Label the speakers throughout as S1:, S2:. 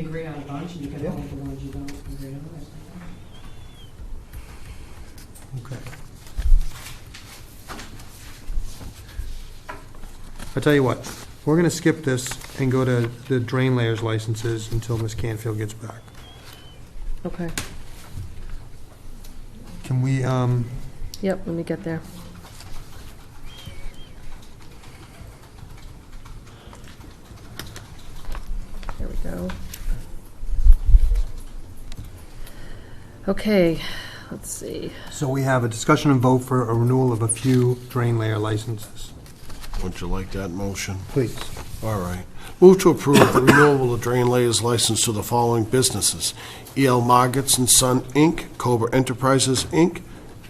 S1: agree on a bunch, and you can
S2: Yeah.
S1: hold the ones you don't agree on. I think.
S2: Okay. I tell you what, we're gonna skip this and go to the drain layers licenses until Ms. Canfield gets back.
S3: Okay,
S2: Can we, um,
S3: yep, let me get there. There we go. Okay, let's see.
S2: so we have a discussion and vote for a renewal of a few drain layer licenses.
S4: Would you like that motion?
S2: Please.
S4: All right. Move to approve the renewal of drain layers license to the following businesses: E.L. Margits and Son, Inc., Cobra Enterprises, Inc.,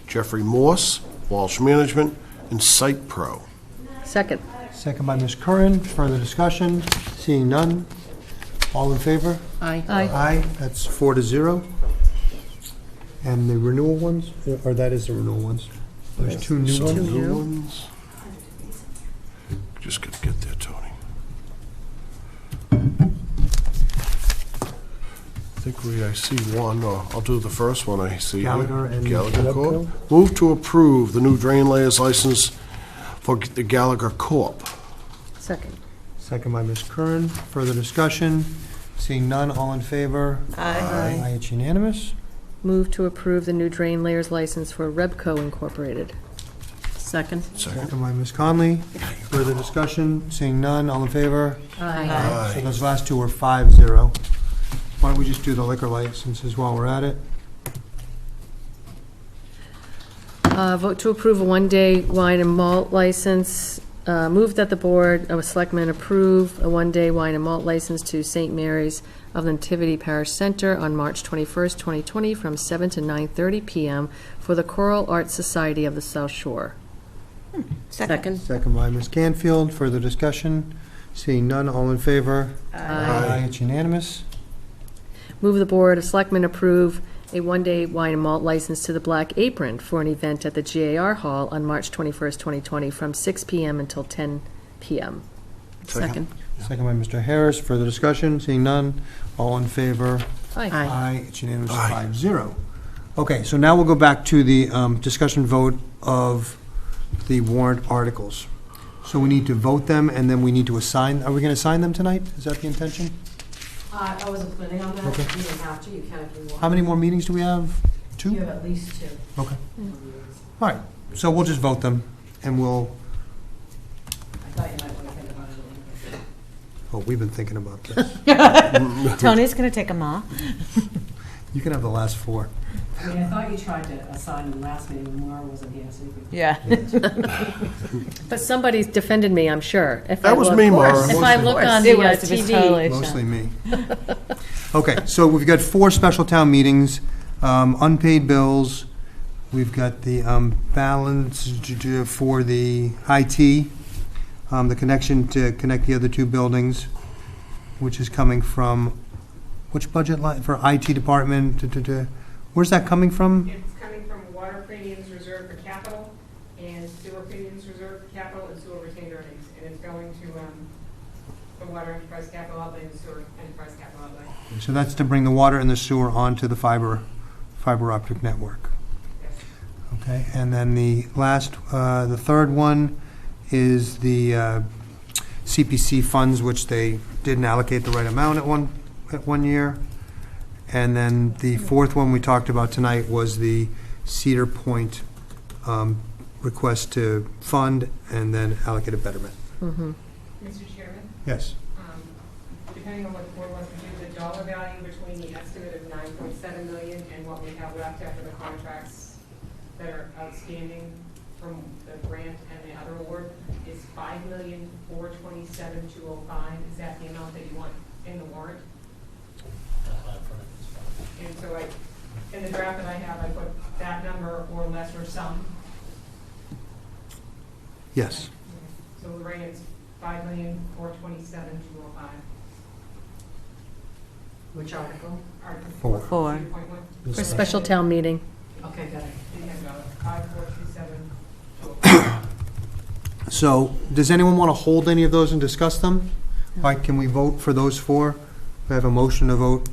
S4: Jeffrey Morse, Walsh Management, and Site Pro.
S3: Second,
S2: Second by Ms. Curran, further discussion, seeing none. All in favor?
S5: Aye.
S3: aye.
S2: Aye, that's four to zero. And the renewal ones, or that is the renewal ones? There's two new
S4: So
S2: ones?
S3: new.
S4: new ones. Just gotta get there, Tony. I think we, I see one, or I'll do the first one I see. here.
S2: Gallagher and
S4: Gallagher
S2: Gallagher
S4: Corp. Move to approve the new drain layers license for the Gallagher Corp.
S3: Second,
S2: Second by Ms. Curran. Further discussion? Seeing none, all in favor?
S4: Aye.
S2: Aye, it's unanimous.
S3: move to approve the new drain layers license for Rebco Incorporated.
S5: Second.
S4: Second.
S2: Second by Ms. Conley. Further discussion? Seeing none, all in favor?
S3: Aye.
S2: So
S4: Aye.
S2: those last two are five zero. Why don't we just do the liquor licenses while we're at it?
S3: Uh, Vote to approve a one-day wine and malt license. Uh, Move that the Board of Selectmen approve a one-day wine and malt license to St. Mary's of the Nativity Parish Center on March 21st, 2020, from 7 to 9:30 PM for the Choral Arts Society of the South Shore.
S5: Second.
S2: Second by Ms. Canfield. Further discussion? Seeing none, all in favor? Aye, it's unanimous.
S3: Move the Board of Selectmen approve a one-day wine and malt license to the Black Apron for an event at the GAR Hall on March 21st, 2020, from 6 PM until 10 PM.
S5: Second.
S2: Second by Mr. Harris. Further discussion? Seeing none, all in favor?
S3: Aye.
S5: Aye.
S2: Aye, it's unanimous,
S4: Aye.
S2: five zero. Okay, so now we'll go back to the um, discussion vote of the warrant articles. So we need to vote them, and then we need to assign, are we going to assign them tonight? Is that the intention?
S1: Uh, I wasn't planning on that,
S2: Okay.
S1: you don't have to, you can if you want.
S2: How many more meetings do we have?
S1: You
S2: Two?
S1: have at least two.
S2: Okay. All right, so we'll just vote them, and we'll,
S1: I thought you might want to think about it a little bit.
S2: oh, we've been thinking about this.
S5: Tony's going to take them all.
S2: You can have the last four.
S1: I mean, I thought you tried to assign them last meeting when Laura wasn't here, so you could.
S5: Yeah.
S3: But somebody defended me, I'm sure. If I
S4: That was
S3: look-
S4: me,
S2: course.
S4: Mara.
S3: If I look on
S5: It
S3: the uh,
S5: was, it was
S3: TV,
S5: totally-
S2: Mostly me. Okay, so we've got four special town meetings, um, unpaid bills, we've got the um, balance d- d- for the IT, um, the connection to connect the other two buildings, which is coming from, which budget line, for IT department, d- d- d- where's that coming from?
S6: It's coming from water premiums reserved for capital and sewer premiums reserved for capital and sewer retained earnings. And it's going to, um, the water enterprise capital outlay and sewer enterprise capital outlay.
S2: So that's to bring the water and the sewer onto the fiber, fiber optic network.
S6: Yes.
S2: Okay, and then the last, uh, the third one is the uh, CPC funds, which they didn't allocate the right amount at one, at one year. And then the fourth one we talked about tonight was the Cedar Point um, request to fund and then allocate a betterment.
S6: Mr. Chairman,
S2: Yes.
S6: um, depending on what the board wants to do, the dollar value between the estimate of nine point seven million and what we have left after the contracts that are outstanding from the grant and the other award is five million, four twenty-seven, two oh five. Is that the amount that you want in the warrant? And so I, in the draft that I have, I put that number or lesser sum.
S2: Yes.
S6: So Lorraine's five million, four twenty-seven, two oh five.
S1: Which article?
S6: Article
S2: Four.
S5: Four.
S6: Zero point one.
S3: for special town meeting.
S1: Okay, got it.
S6: And you have, uh, five, four, two, seven, two oh five.
S2: So, does anyone want to hold any of those and discuss them? Like, can we vote for those four? I have a motion to vote